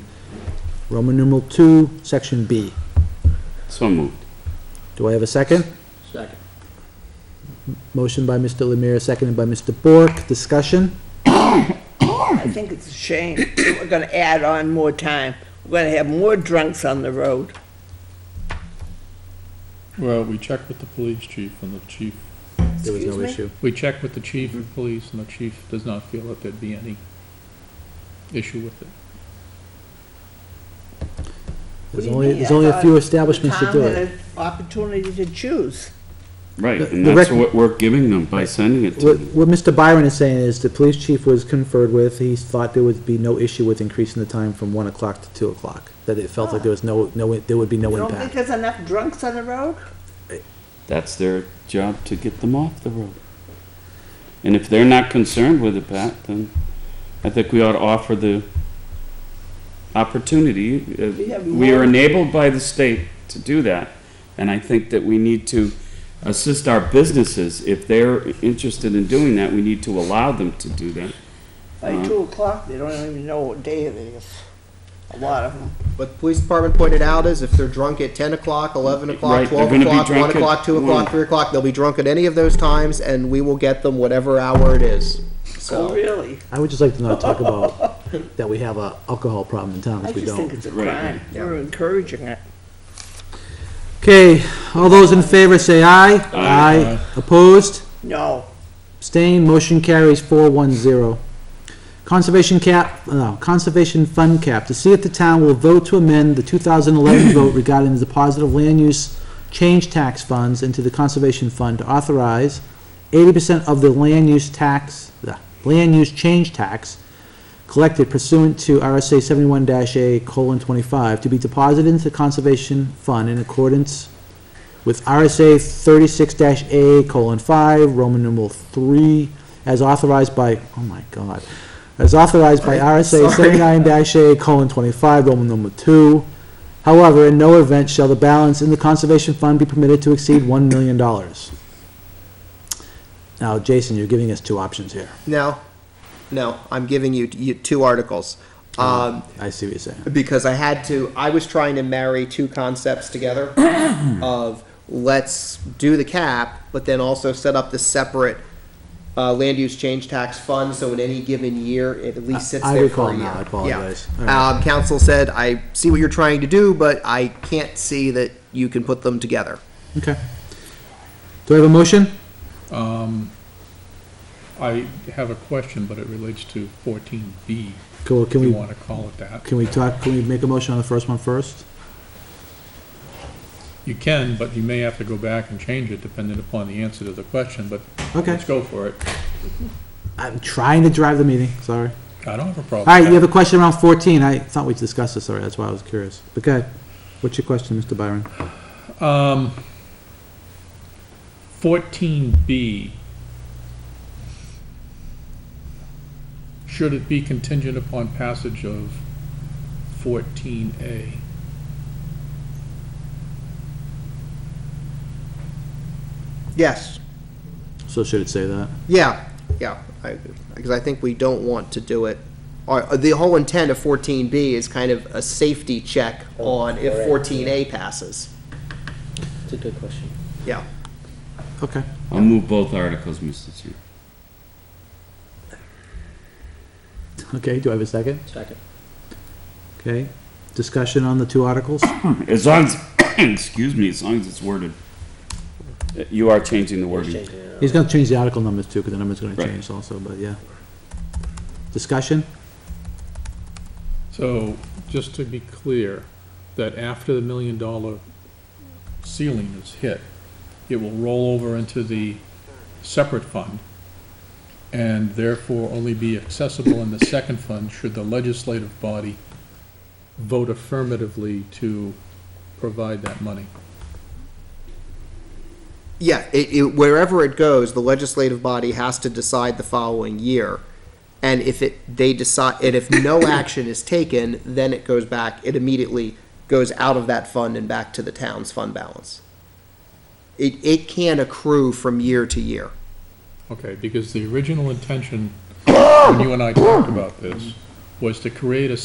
Roman numeral two, section B. So moved. Do I have a second? Second. Motion by Mr. Lemire, seconded by Mr. Bork. Discussion? I think it's a shame. We're gonna add on more time. We're gonna have more drunks on the road. Well, we checked with the police chief and the chief, There was Excuse no me? issue. we checked with the chief Mm-hmm. of police and the chief does not feel that there'd be any issue with it. There's What do you only, mean? there's I only a thought few establishments The to town do had it. an Opportunity to choose. Right, The- and the that's rec- what we're giving them by sending it to What, them. what Mr. Byron is saying is the police chief was conferred with, he thought there would be no issue with increasing the time from one o'clock to two o'clock. That it felt like there was no, no, there would be no You don't think impact. there's enough drunks on the road? That's their job to get them off the road. And if they're not concerned with it, Pat, then I think we ought to offer the opportunity. Yeah, Uh, we We are want- enabled by the state to do that. And I think that we need to assist our businesses. If they're interested in doing that, we need to allow them to do that. Uh-huh. By two o'clock, they don't even know what day it is. A lot of them. What the police department pointed out is if they're drunk at ten o'clock, eleven Right, o'clock, they're twelve gonna be o'clock, drunk one at o'clock, two one. o'clock, three o'clock, they'll be drunk at any of those times, and we will get them whatever hour it is. Oh, So, really? I would just like to not talk about that we have a alcohol problem in town, I because we just think don't. it's a Right, crime. We're encouraging it. Okay, all those in favor say aye. Aye. Opposed? No. Abstained, motion carries four one zero. Conservation cap, uh, no, Conservation Fund cap, to see if the town will vote to amend the two thousand eleven vote regarding the deposit of land use change tax funds into the Conservation Fund to authorize eighty percent of the land use tax, the land use change tax collected pursuant to RSA seventy-one A colon twenty-five to be deposited into the Conservation Fund in accordance with RSA thirty-six A colon five, Roman numeral three, as authorized by, oh my God, as authorized by RSA seventy-nine A colon twenty-five, Roman numeral two. However, in no event shall the balance in the conservation fund be permitted to exceed one million dollars. Now, Jason, you're giving us two options here. no, no, I'm giving you, you two articles. Oh. Um, I see what you're saying. because I had to, I was trying to marry two concepts together of let's do the cap, but then also set up the separate uh, land use change tax fund, so in any given year, it at least sits I there recall for a year. now, I Yeah. apologize. All right. Um, council said, I see what you're trying to do, but I can't see that you can put them together. Okay. Do I have a motion? Um, I have a question, but it relates to fourteen B, Cool, if can you we, wanna call it that. can we talk, can we make a motion on the first one first? You can, but you may have to go back and change it depending upon the answer to the question, but Okay, let's go for it. I'm trying to drive the meeting, sorry. I don't have a problem. All right, you have a question around 14. I thought we discussed this already, that's why I was curious. Okay, what's your question, Mr. Byron? Um, fourteen B. Should it be contingent upon passage of fourteen A? Yes, So should it say that? yeah, yeah, I, because I think we don't want to do it. Or, uh, the whole intent of fourteen B is kind of a safety check on if correct. fourteen A passes. It's a good question. Yeah. Okay. I'll move both articles, Mr. Chair. Okay, do I have a second? Second. Okay. Discussion on the two articles? As long as, excuse me, as long as it's worded. Uh, You are changing the wording. Changing it. He's gonna change the article numbers too, because the number's gonna Right. change also, but yeah. Discussion? So, just to be clear, that after the million dollar ceiling is hit, it will roll over into the separate fund and therefore only be accessible in the second fund should the legislative body vote affirmatively to provide that money. Yeah, it, it, wherever it goes, the legislative body has to decide the following year. And if it, they decide, and if no action is taken, then it goes back, it immediately goes out of that fund and back to the town's fund balance. It, it can accrue from year to year. Okay, because the original intention, when you and I talked about this, was to create a